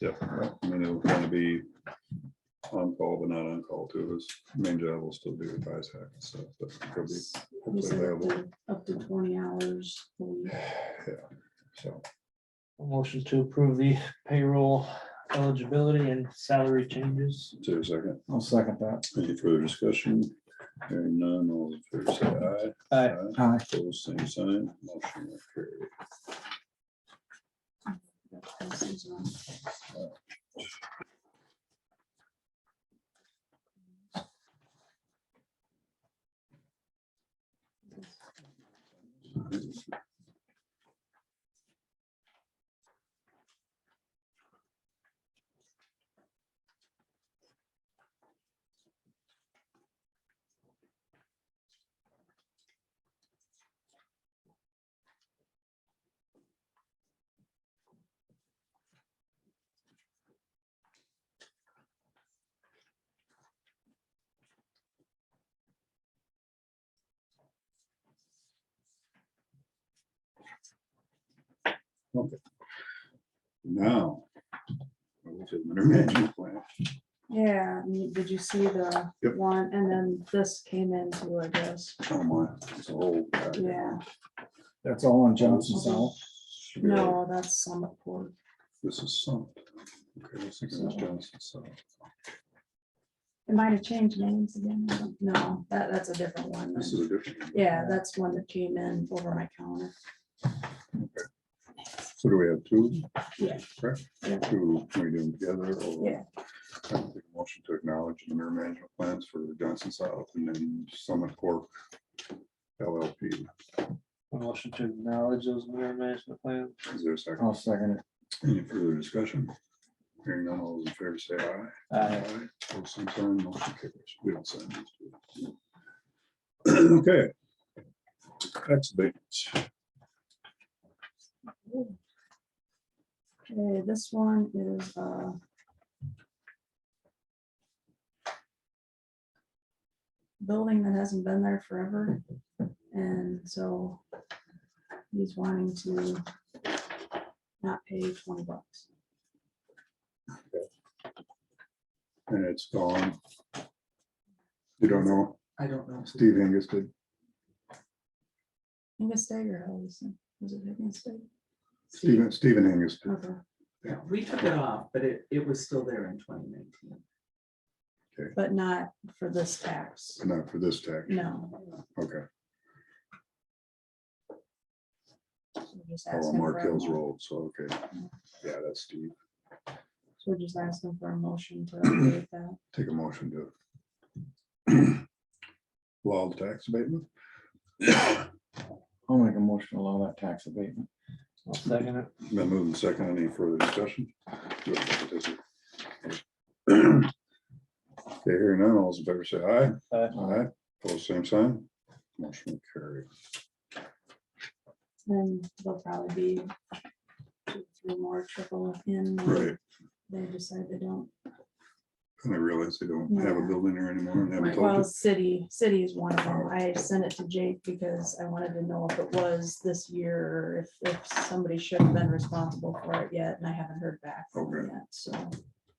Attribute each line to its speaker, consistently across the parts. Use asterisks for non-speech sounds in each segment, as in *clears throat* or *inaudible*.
Speaker 1: Yeah, I mean, it'll kind of be on call, but not on call too. His main job will still be with ISAC and stuff, but he'll be,
Speaker 2: He said up
Speaker 1: available.
Speaker 2: to- up to twenty hours. a week.
Speaker 1: yeah, so.
Speaker 3: Motion to approve the payroll eligibility and salary changes.
Speaker 1: Is there a second?
Speaker 4: I'll second that.
Speaker 1: Any further discussion? Hearing none, all in favor, say aye.
Speaker 3: Aye.
Speaker 4: Aye.
Speaker 1: Pose same sign, motion will carry.
Speaker 2: This is, um,
Speaker 1: Now. I will take my *laughs* management plan.
Speaker 2: Yeah, I mean, did you see the
Speaker 1: Yep.
Speaker 2: one? And then this came in too, I guess.
Speaker 1: Oh my, it's a whole. packet.
Speaker 2: Yeah,
Speaker 4: That's all on Johnson's out.
Speaker 2: no, that's some poor.
Speaker 1: This is some. Okay, let's think of Johnson, so.
Speaker 2: It might have changed names again. I don't- No, that, that's a different one.
Speaker 1: This is a different. one.
Speaker 2: Yeah, that's one that came in over my counter.
Speaker 1: So do we have two?
Speaker 2: Yeah.
Speaker 1: Correct?
Speaker 2: Yeah.
Speaker 1: Two, we do them together or?
Speaker 2: Yeah.
Speaker 1: I think a Motion to acknowledge the interim management plans for Johnson South and then Summit Corp. LLP.
Speaker 3: A Motion to acknowledge those mirror management plans.
Speaker 1: Is there a second?
Speaker 4: I'll second
Speaker 1: Any further discussion? Hearing none, all those in favor say aye.
Speaker 3: Aye.
Speaker 1: Opposed, same sign, motion carries. We don't sign these. two. *clears throat* Okay. Tax abatements.
Speaker 2: Okay, this one is, uh. Building that hasn't been there forever, and so. He's wanting to. Not pay twenty bucks.
Speaker 1: And it's gone. You don't know,
Speaker 5: I don't know.
Speaker 1: Steve Angus did.
Speaker 2: Angus Day or Allison, was it Angus Day?
Speaker 1: Stephen, Stephen Angus. did.
Speaker 2: Okay,
Speaker 5: Yeah, We took it off, but it, it was still there in twenty nineteen.
Speaker 2: But not for this tax,
Speaker 1: Not for this tax,
Speaker 2: no.
Speaker 1: okay. Oh,
Speaker 2: So we're just
Speaker 1: Oh,
Speaker 2: asking for
Speaker 1: Mark
Speaker 2: a
Speaker 1: Hill's
Speaker 2: mo-
Speaker 1: Road, so, okay. Yeah, that's Steve.
Speaker 2: So we're just asking for a motion to update that.
Speaker 1: Take a motion *clears throat* to allow the tax abatement.
Speaker 4: it. I'll make a motion to allow that tax abatement.
Speaker 3: I'll second it.
Speaker 1: Then move and second, any further discussion? Okay, hearing none, all's in favor, say aye.
Speaker 3: Aye.
Speaker 1: Aye, Pose same sign. Motion carried.
Speaker 2: Then there'll probably be. two, Three more triple in. when
Speaker 1: Right,
Speaker 2: They decide they don't.
Speaker 1: and I realize they don't have a
Speaker 2: Yeah.
Speaker 1: building there anymore and haven't
Speaker 5: Right.
Speaker 1: told
Speaker 2: Well,
Speaker 1: us.
Speaker 2: city, city is one of them. I sent it to Jake because I wanted to know if it was this year, if, if somebody should have been responsible for it yet, and I haven't heard back from him
Speaker 1: Okay.
Speaker 2: yet, so.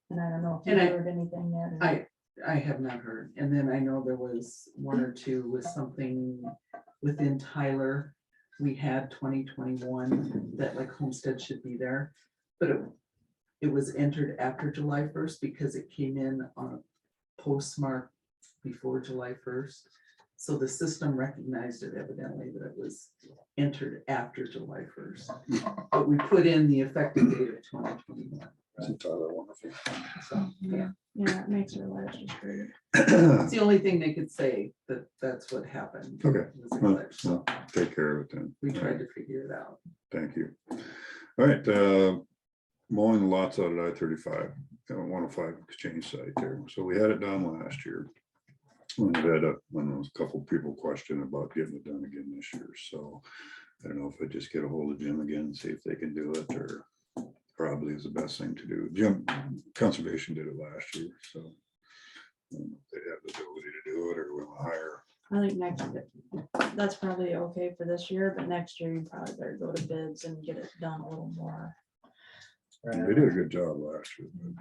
Speaker 2: And I don't know if you
Speaker 5: And I-
Speaker 2: heard anything yet. or-
Speaker 5: I, I have not heard. And then I know there was one or two with something within Tyler. We had twenty twenty-one that like Homestead should be there, but it, it was entered after July first because it came in on a postmark before July first. So the system recognized it evidently that it was entered after July first. But we put in the effective date of twenty twenty-one.
Speaker 1: Isn't Tyler wonderful?
Speaker 5: So, yeah.
Speaker 2: Yeah, it makes her life just great.
Speaker 5: It's the only thing they could say that that's what happened.
Speaker 1: Okay,
Speaker 5: was a
Speaker 1: *clears throat* well,
Speaker 5: glitch, So
Speaker 1: Take care of it then.
Speaker 5: we tried to figure it out.
Speaker 1: Thank you. All right, uh, mowing the lots out at I thirty-five, one oh five exchange site there. So we had it done last year. We had a, when there was a couple people questioned about getting it done again this year, so I don't know if I just get a hold of Jim again, and see if they can do it, or probably is the best thing to do. Jim, conservation did it last year, so um, they have the ability to do it, or we'll hire,
Speaker 2: I think next, that's probably okay for this year, but next year you probably better go to bids and get it done a little more.
Speaker 3: Right.
Speaker 1: They did a good job last year. but-